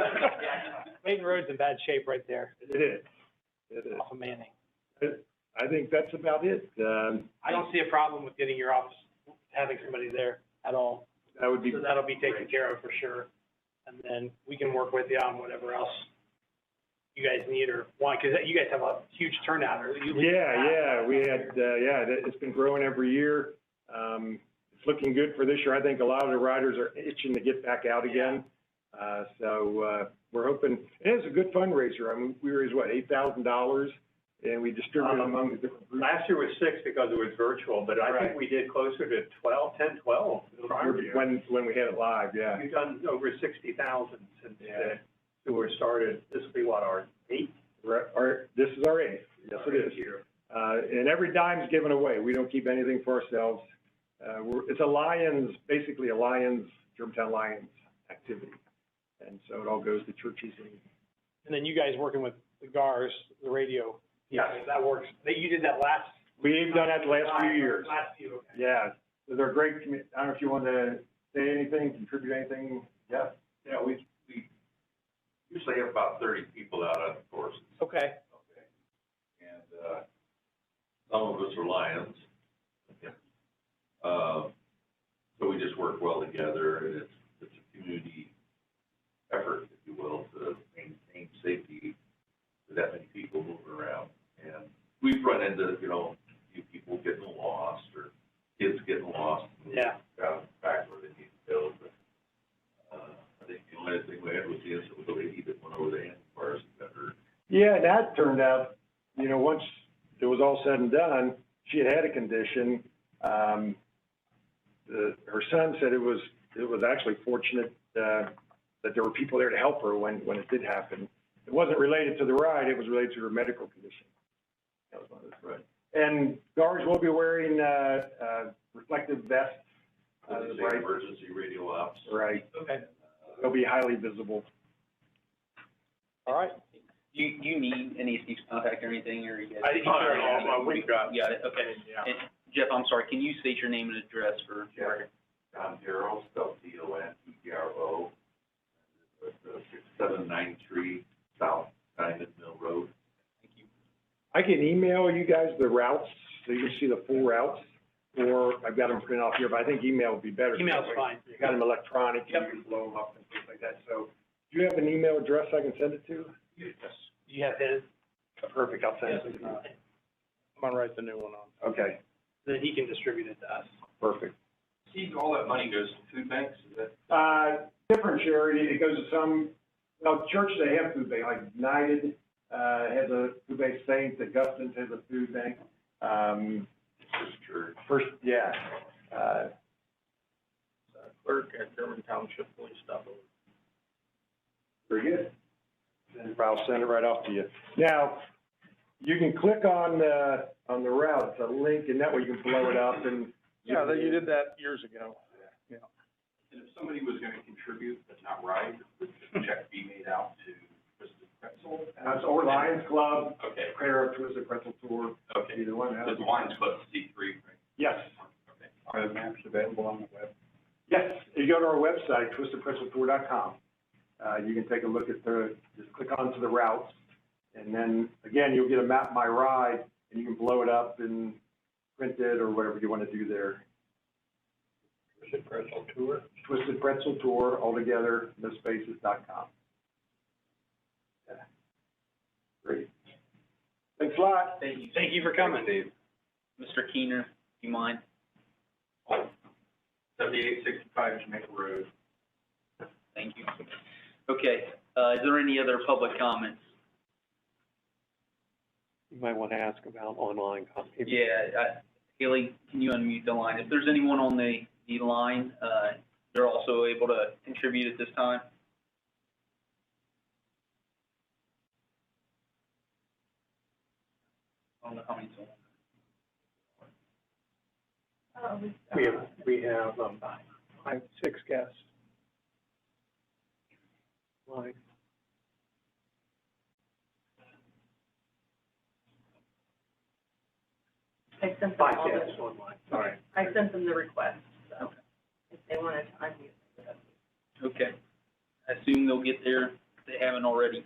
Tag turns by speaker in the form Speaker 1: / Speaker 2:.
Speaker 1: Main Road's in bad shape right there,
Speaker 2: It is, it is.
Speaker 1: off of Manning.
Speaker 2: I think that's about it. Um,
Speaker 1: I don't see a problem with getting your office, having somebody there at all.
Speaker 2: that would be,
Speaker 1: So that'll be taken care of for sure. And then we can work with you on whatever else you guys need or want, because you guys have a huge turnout or you.
Speaker 2: yeah, yeah, we had, uh, yeah, it- it's been growing every year. Um, it's looking good for this year. I think a lot of the riders are itching to get back out again. Uh, so, uh, we're hoping, it is a good fundraiser. I mean, we raised, what, eight thousand dollars? And we distributed
Speaker 3: Um,
Speaker 2: among the different groups.
Speaker 3: Last year was six because it was virtual, but I
Speaker 1: Right.
Speaker 3: think we did closer to twelve, ten, twelve the prior year.
Speaker 2: When, when we had it live, yeah.
Speaker 3: We've done over sixty thousand since
Speaker 2: Yeah.
Speaker 3: the tour started. This will be what, our eighth?
Speaker 2: Right, our, this is our eighth. Yes,
Speaker 3: our
Speaker 2: it is.
Speaker 3: eighth year.
Speaker 2: Uh, and every dime's given away. We don't keep anything for ourselves. Uh, we're, it's a Lions, basically a Lions, Germantown Lions activity. And so it all goes to churches and,
Speaker 1: And then you guys working with the GARS, the radio.
Speaker 2: yes.
Speaker 1: That works. That you did that last.
Speaker 2: We've done that the last few years.
Speaker 1: Last few, okay.
Speaker 2: Yeah. So they're great. commu- I don't know if you want to say anything, contribute anything. Yeah.
Speaker 4: Yeah, we, we usually have about thirty people out on the course,
Speaker 1: Okay,
Speaker 4: and, uh, some of us are lions. Uh, so we just work well together, and it's, it's a community effort, if you will, to maintain safety with that many people moving around. And we've run into, you know, a few people getting lost, or kids getting lost. and
Speaker 1: yeah.
Speaker 4: Got back where they need to go, but, uh, I think the only other thing we had was the incident with the lady that went over the handlebars and got hurt.
Speaker 2: Yeah, and that turned out, you know, once it was all said and done, she had had a condition. Um, the, her son said it was, it was actually fortunate, uh, that there were people there to help her when, when it did happen. It wasn't related to the ride, it was related to her medical condition. That was one of those.
Speaker 4: Right.
Speaker 2: And guards will be wearing, uh, uh, reflective vests. uh,
Speaker 4: They say
Speaker 2: right,
Speaker 4: emergency radio ops.
Speaker 2: right.
Speaker 1: Okay.
Speaker 2: They'll be highly visible.
Speaker 1: All right.
Speaker 5: Do you, do you need any of Steve's contact or anything, or you guys?
Speaker 3: I think
Speaker 4: Oh, yeah, yeah,
Speaker 3: we've got.
Speaker 5: Got it, okay.
Speaker 3: Yeah.
Speaker 5: And Jeff, I'm sorry, can you state your name and address for?
Speaker 4: Yeah. Don Darrow, spelled D O N E D R O. Six seven nine three South Diamond Mill Road.
Speaker 2: I can email you guys the routes, so you can see the full routes, or I've got them printed off here, but I think email would be better.
Speaker 1: Email's fine.
Speaker 2: You got them electronic, you
Speaker 1: Yep.
Speaker 2: can blow them up and things like that, so, do you have an email address I can send it to?
Speaker 4: Yes.
Speaker 1: You have his?
Speaker 2: Perfect, I'll send
Speaker 1: Yes.
Speaker 2: it to you.
Speaker 1: I'm gonna write the new one on.
Speaker 2: Okay,
Speaker 1: Then he can distribute it to us.
Speaker 2: perfect.
Speaker 4: Steve, all that money goes to food banks, is that?
Speaker 2: Uh, different charity, it goes to some, well, church, they have food bank, like United, uh, has a food bank, Saints, Augustine has a food bank, um,
Speaker 4: It's just your
Speaker 2: first, yeah, uh,
Speaker 4: uh,
Speaker 3: Clerk at German Township Police Department.
Speaker 2: Very good. Then I'll send it right off to you. Now, you can click on, uh, on the route, it's a link, and that way you can blow it up and.
Speaker 6: Yeah, that, you did that years ago.
Speaker 4: And if somebody was gonna contribute but not ride, would the check be made out to Kristen Pretzel?
Speaker 2: That's or Lions Club,
Speaker 4: Okay,
Speaker 2: Prayer of Twisted Pretzel Tour,
Speaker 4: okay.
Speaker 2: either one.
Speaker 4: The Lions Club C three, right?
Speaker 2: Yes,
Speaker 4: Okay.
Speaker 3: Are the maps available on the web?
Speaker 2: yes. If you go to our website, twistedpretzeltour.com, uh, you can take a look at the, just click onto the routes. And then, again, you'll get a map my ride, and you can blow it up and print it or whatever you want to do there.
Speaker 3: Kristen Pretzel Tour.
Speaker 2: Twisted Pretzel Tour, altogether, no spaces, dot com. Yeah. Great. Thanks a lot.
Speaker 5: Thank you.
Speaker 1: Thank you for coming.
Speaker 5: Mr. Keener, do you mind?
Speaker 4: Seventy-eight sixty-five Jamaica Road.
Speaker 5: Thank you. Okay, uh, is there any other public comments?
Speaker 7: you might want to ask about online copy.
Speaker 5: Yeah, uh, Haley, can you unmute the line? If there's anyone on the, the line, uh, they're also able to contribute at this time. I don't know how many.
Speaker 1: We have, we have, um,
Speaker 6: I have six guests.
Speaker 7: Like,
Speaker 8: I sent them
Speaker 1: five
Speaker 8: all
Speaker 1: guests
Speaker 8: the,
Speaker 1: online.
Speaker 2: Sorry.
Speaker 8: I sent them the request, so if they wanted to unmute.
Speaker 5: Okay. I assume they'll get there if they haven't already.